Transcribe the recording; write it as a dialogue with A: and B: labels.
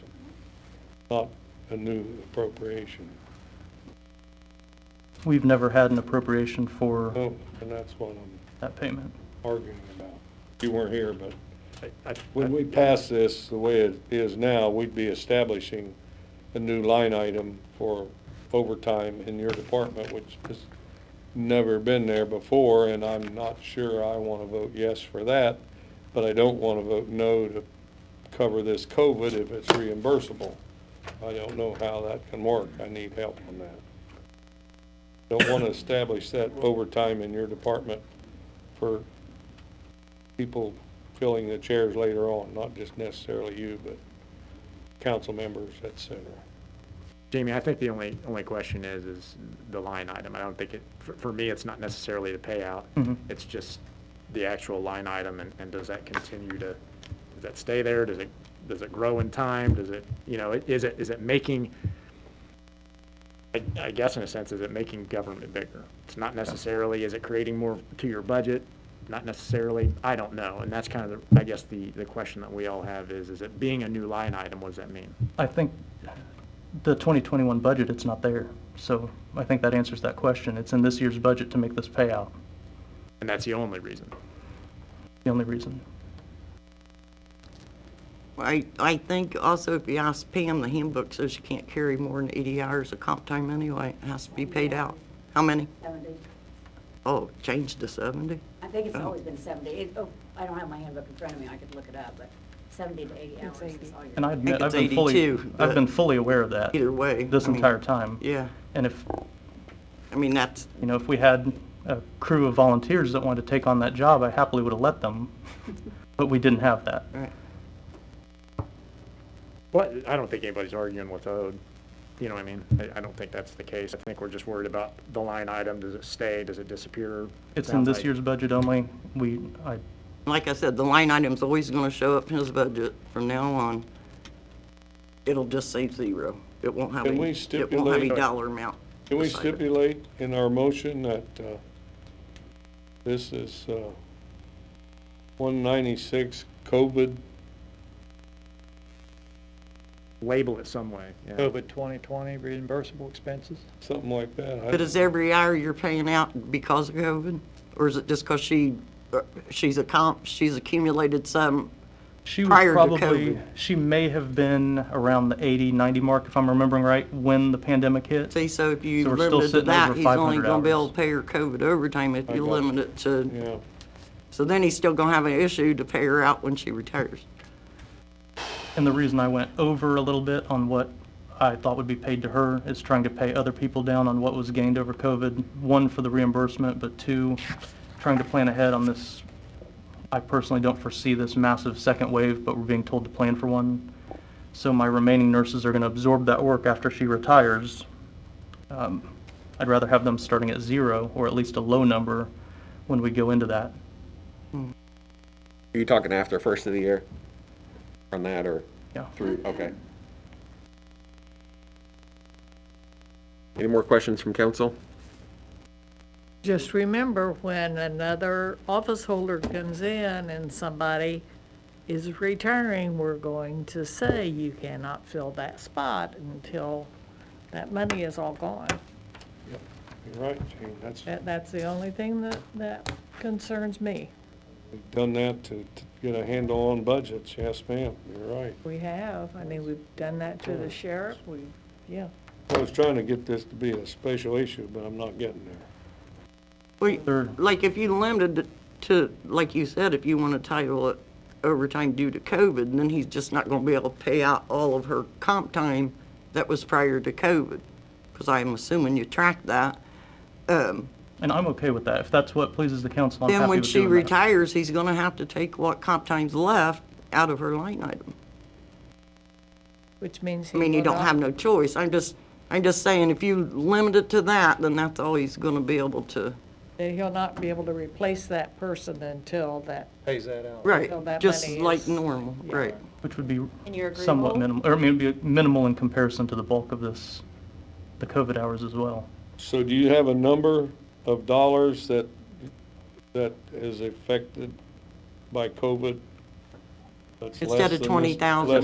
A: not a new appropriation.
B: We've never had an appropriation for
A: No, Oh, and that's what I'm
B: that payment.
A: arguing about. You weren't here, but
C: I- I-
A: when we pass this the way it is now, we'd be establishing a new line item for overtime in your department, which has never been there before, and I'm not sure I want to vote yes for that, but I don't want to vote no to cover this COVID if it's reimbursable. I don't know how that can work. I need help on that. Don't want to establish that overtime in your department for people filling the chairs later on, not just necessarily you, but council members, et cetera.
C: Jamie, I think the only, only question is, is the line item. I don't think it, for, for me, it's not necessarily the payout.
A: Mm-hmm.
B: Mhm.
C: It's just the actual line item and, and does that continue to, does that stay there? Does it, does it grow in time? Does it, you know, it- is it, is it making, I, I guess in a sense, is it making government bigger? It's not necessarily, is it creating more to your budget? Not necessarily, I don't know. And that's kind of, the I guess, the, the question that we all have is, is it being a new line item, what does that mean?
B: I think the 2021 budget, it's not there. So I think that answers that question. It's in this year's budget to make this payout,
C: And that's the only reason.
B: the only reason.
D: I, I think also if you ask Pam, the handbook says you can't carry more than 80 hours of comp time anyway. It has to be paid out. How many?
E: 70.
D: Oh, change to 70?
E: I think it's
D: Oh.
E: always been 70. It- Oh, I don't have my handbook in front of me, I could look it up, but 70 to 80 hours is all
B: And I
E: you're,
B: admit, I've
D: it's
B: been fully,
D: 82,
B: I've
D: but
B: been fully aware of that.
D: Either way.
B: This
D: I mean,
B: entire time.
D: Yeah,
B: And if,
D: I mean, that's,
B: you know, if we had a crew of volunteers that wanted to take on that job, I happily would have let them. But we didn't have that.
D: right.
C: Well, I don't think anybody's arguing with owed. You know what I mean? I, I don't think that's the case. I think we're just worried about the line item. Does it stay? Does it disappear?
B: It's in this
C: Sounds
B: year's budget only. We, I,
D: Like I said, the line item's always going to show up in his budget from now on. It'll just say zero. It won't have
A: Can we
D: a, it won't have a
A: stipulate-
D: dollar amount.
A: Can we
D: beside it.
A: stipulate in our motion that uh, this is uh, 196 COVID,
C: like Label it some way, yeah.
F: COVID 2020 reimbursable expenses?
A: something like that? I-
D: But is every hour you're paying out because of COVID? Or is it just because she, uh, she's a comp, she's accumulated some
B: she was
D: Prior to
B: probably,
D: COVID.
B: she may have been around the 80, 90 mark, if I'm remembering right, when the pandemic hit.
D: See, so if you
B: So we're still
D: limit it to
B: sitting
D: that,
B: over
D: he's only
B: 500
D: gonna be able
B: hours.
D: to pay her COVID overtime if
A: I got
D: you
A: you.
D: limit it to,
A: Yeah,
D: so then he's still gonna have an issue to pay her out when she retires.
B: And the reason I went over a little bit on what I thought would be paid to her is trying to pay other people down on what was gained over COVID. One, for the reimbursement, but two, trying to plan ahead on this. I personally don't foresee this massive second wave, but we're being told to plan for one. So my remaining nurses are going to absorb that work after she retires. Um, I'd rather have them starting at zero, or at least a low number, when we go into that.
G: Are you talking after first of the year? On that or
B: Yeah.
G: through, okay. Any more questions from council?
H: Just remember when another office holder comes in and somebody is retiring, we're going to say you cannot fill that spot until that money is all gone.
A: you're right, Gene, that's,
H: That, that's the only thing that, that concerns me.
A: we've done that to to get a handle on budgets, yes, ma'am, you're right.
H: We have, I mean, we've done that to the sheriff, we, yeah.
A: I was trying to get this to be a special issue, but I'm not getting there.
D: Well,
B: Sure.
D: like, if you limited it to, like you said, if you wanna title it overtime due to COVID, then he's just not gonna be able to pay out all of her comp time that was prior to COVID. Cause I'm assuming you track that. Um,
B: And I'm okay with that. If that's what pleases the council, I'm
D: Then
B: happy
D: when
B: with
D: she
B: doing that.
D: retires, he's gonna have to take what comp time's left out of her line item.
H: Which means
D: I
H: he
D: mean, you
H: will
D: don't
H: not-
D: have no choice. I'm just, I'm just saying, if you limit it to that, then that's all he's gonna be able to.
H: that he'll not be able to replace that person until that,
F: Pays that out.
D: Right,
H: Well, that
D: just
H: money
D: like
H: is-
D: normal, right.
B: Which would be
I: And you're
B: somewhat
I: agreeable?
B: minimal, or I mean, it'd be minimal in comparison to the bulk of this, the COVID hours as well.
A: So do you have a number of dollars that, that is affected by COVID? that's less
D: Instead of
A: than this-
D: 20,000.
A: less